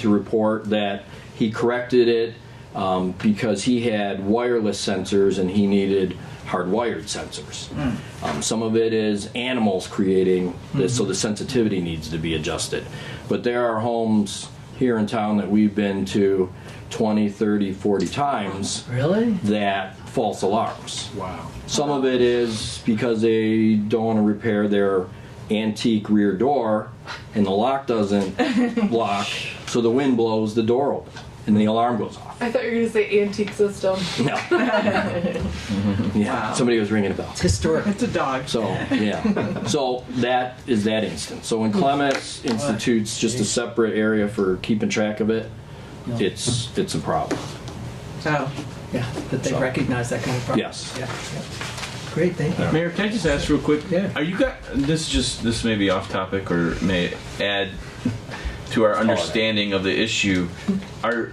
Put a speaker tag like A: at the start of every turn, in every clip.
A: to report that he corrected it um, because he had wireless sensors and he needed hardwired sensors. Um, some of it is animals creating this, so the sensitivity needs to be adjusted. But there are homes here in town that we've been to 20, 30, 40
B: Oh,
A: times
B: Really?
A: that false alarms.
C: Wow.
A: Some of it is because they don't want to repair their antique rear door and the lock doesn't lock, so the wind blows the door open and the alarm goes off.
D: I thought you were gonna say antique system.
A: No. Yeah,
B: Wow.
A: somebody was ringing a bell.
B: It's historic.
C: It's a dog.
A: So, yeah. So that is that instance. So when Clements institutes just a separate area for keeping track of it, it's it's a problem.
C: So,
B: Yeah, that they
A: So-
B: recognize that kind of problem.
A: Yes.
B: Yeah. yeah. Great, thank you.
E: Mayor, can I just ask real quick?
B: Yeah.
E: Are you got this? Is just this may be off topic or may add to our understanding of the issue. Are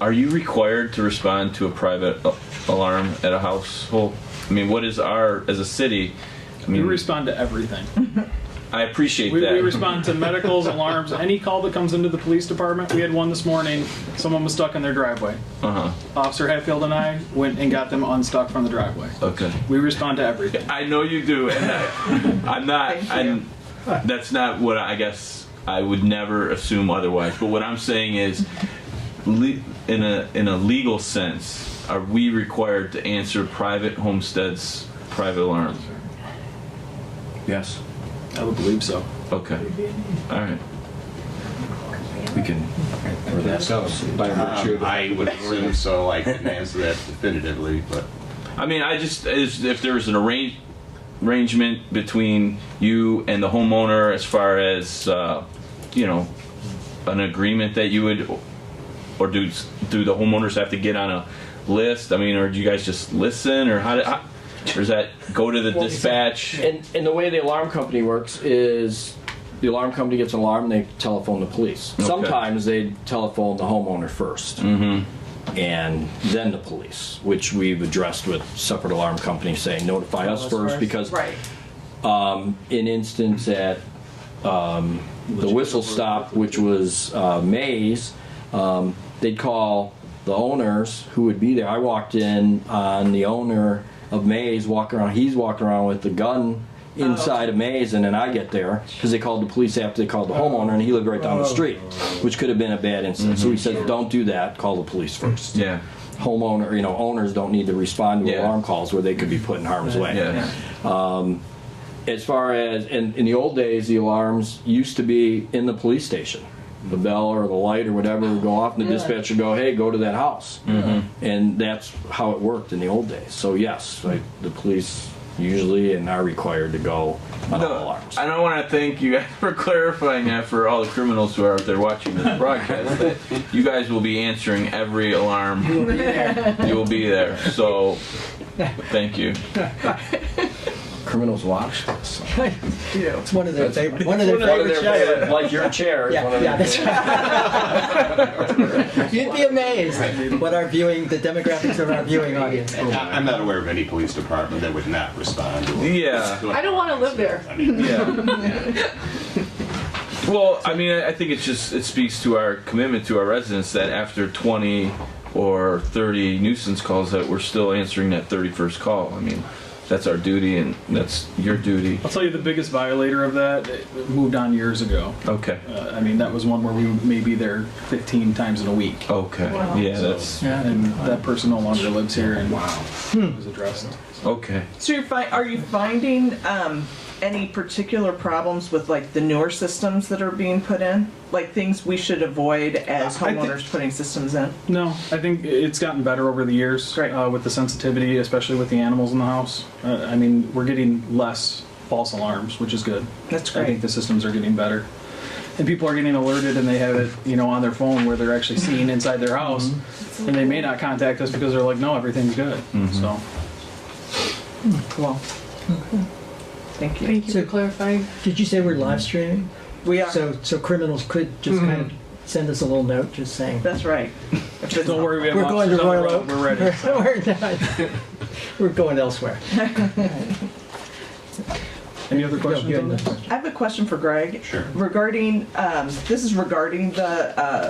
E: are you required to respond to a private a- alarm at a household? I mean, what is our as a city? I
F: We
E: mean,
F: respond to everything.
E: I appreciate
F: We,
E: that.
F: we respond to medicals, alarms, any call that comes into the police department. We had one this morning. Someone was stuck in their driveway.
E: Uh huh.
F: Officer Hatfield and I went and got them unstuck from the driveway.
E: Okay.
F: We respond to everything.
E: I know you do, and I, I'm not. I'm, that's not what I guess I would never assume otherwise. But what I'm saying is, le- in a in a legal sense, are we required to answer private homesteads private alarms?
A: Yes.
F: I would believe so.
E: Okay. All right.
A: We can. Or that's by virtue of
G: Um, I would assume so. I couldn't answer that definitively, but
E: I mean, I just is if there was an arrange, arrangement between you and the homeowner as far as uh, you know, an agreement that you would, or do do the homeowners have to get on a list? I mean, or do you guys just listen, or how? do- how or is that go to the dispatch?
A: And, and the way the alarm company works is the alarm company gets an alarm, they telephone the police. Sometimes they telephone the homeowner 1st and then the police, which we've addressed with separate alarm companies saying notify us
B: us
A: first,
B: first.
A: because um,
D: Right.
A: in instance at um, the whistle stop, which was uh, Mays, um, they'd call the owners who would be there. I walked in on the owner of Mays walking around. He's walking around with the gun
E: Oh,
A: inside of Mays, and then I get there because they called the police after they called the homeowner, and he lived right down the street,
E: Oh.
A: which could have been a bad incident. So he said, "Don't do that. Call the police first.
E: Mm-hmm. Yeah,
A: Homeowner, you know, owners don't need to respond to
E: Yeah.
A: alarm calls where they could be put in harm's way."
E: yeah,
A: as far as in, in the old days the alarms used to be in the police station the bell or the light or whatever would go off and the dispatcher would go hey go to that house
B: Mm-hmm.
A: and that's how it worked in the old days so yes like the police usually and are required to go on all
E: No,
A: alarms
E: I don't want to thank you guys for clarifying that for all the criminals who are out there watching this broadcast. that you guys will be answering every alarm. You will be there. So, thank you.
A: criminals watch this
B: It's one of their favorite. One of their
E: One of
B: favorite
E: their
B: shows.
E: favorite-
A: like your chair is one
B: Yeah,
A: of
B: yeah,
A: the-
B: that's right. You'd be amazed what our viewing, the demographics of our viewing audience.
G: I- I'm not aware of any police department that would not respond. To a-
E: Yeah.
G: to a-
D: I don't want to live there.
G: I mean,
E: Well, I mean, I I think it's just it speaks to our commitment to our residents that after 20 or 30 nuisance calls that we're still answering that 31st call. I mean, that's our duty and that's your duty.
F: I'll tell you the biggest violator of that it moved on years ago.
E: Okay.
F: Uh, I mean, that was one where we may be there 15 times in a week.
E: Okay. Oh, Yeah, that's
F: And that person no longer lives here and wow. was addressed.
E: okay.
C: so you're fi- are you finding um, any particular problems with like the newer systems that are being put in? Like things we should avoid as
F: I think-
C: homeowners putting systems in?
F: No, I think it's gotten better over the years
C: Great.
F: uh, with the sensitivity, especially with the animals in the house. Uh, I mean, we're getting less false alarms, which is good.
C: That's
F: I think
C: great.
F: the systems are getting better. And people are getting alerted and they have it, you know, on their phone where they're actually seeing inside their
B: Mm-hmm.
F: house. And they may not contact us because they're like, no, everything's good. So
C: Cool. Thank you.
D: Thank you for clarifying.
B: Did you say we're live streaming?
C: We are.
B: So, so criminals could just kind of send us a little note, just saying.
C: that's right. If it's-
F: don't worry, we have
B: We're going to
F: officers on the
B: Royal
F: road.
B: Oak.
F: We're ready.
B: We're, not- we're going elsewhere.
F: Any other
B: No,
F: questions
B: you had
F: on
B: another
F: this?
B: question.
C: I have a question for Greg.
G: Sure.
C: Regarding um, this is regarding the uh,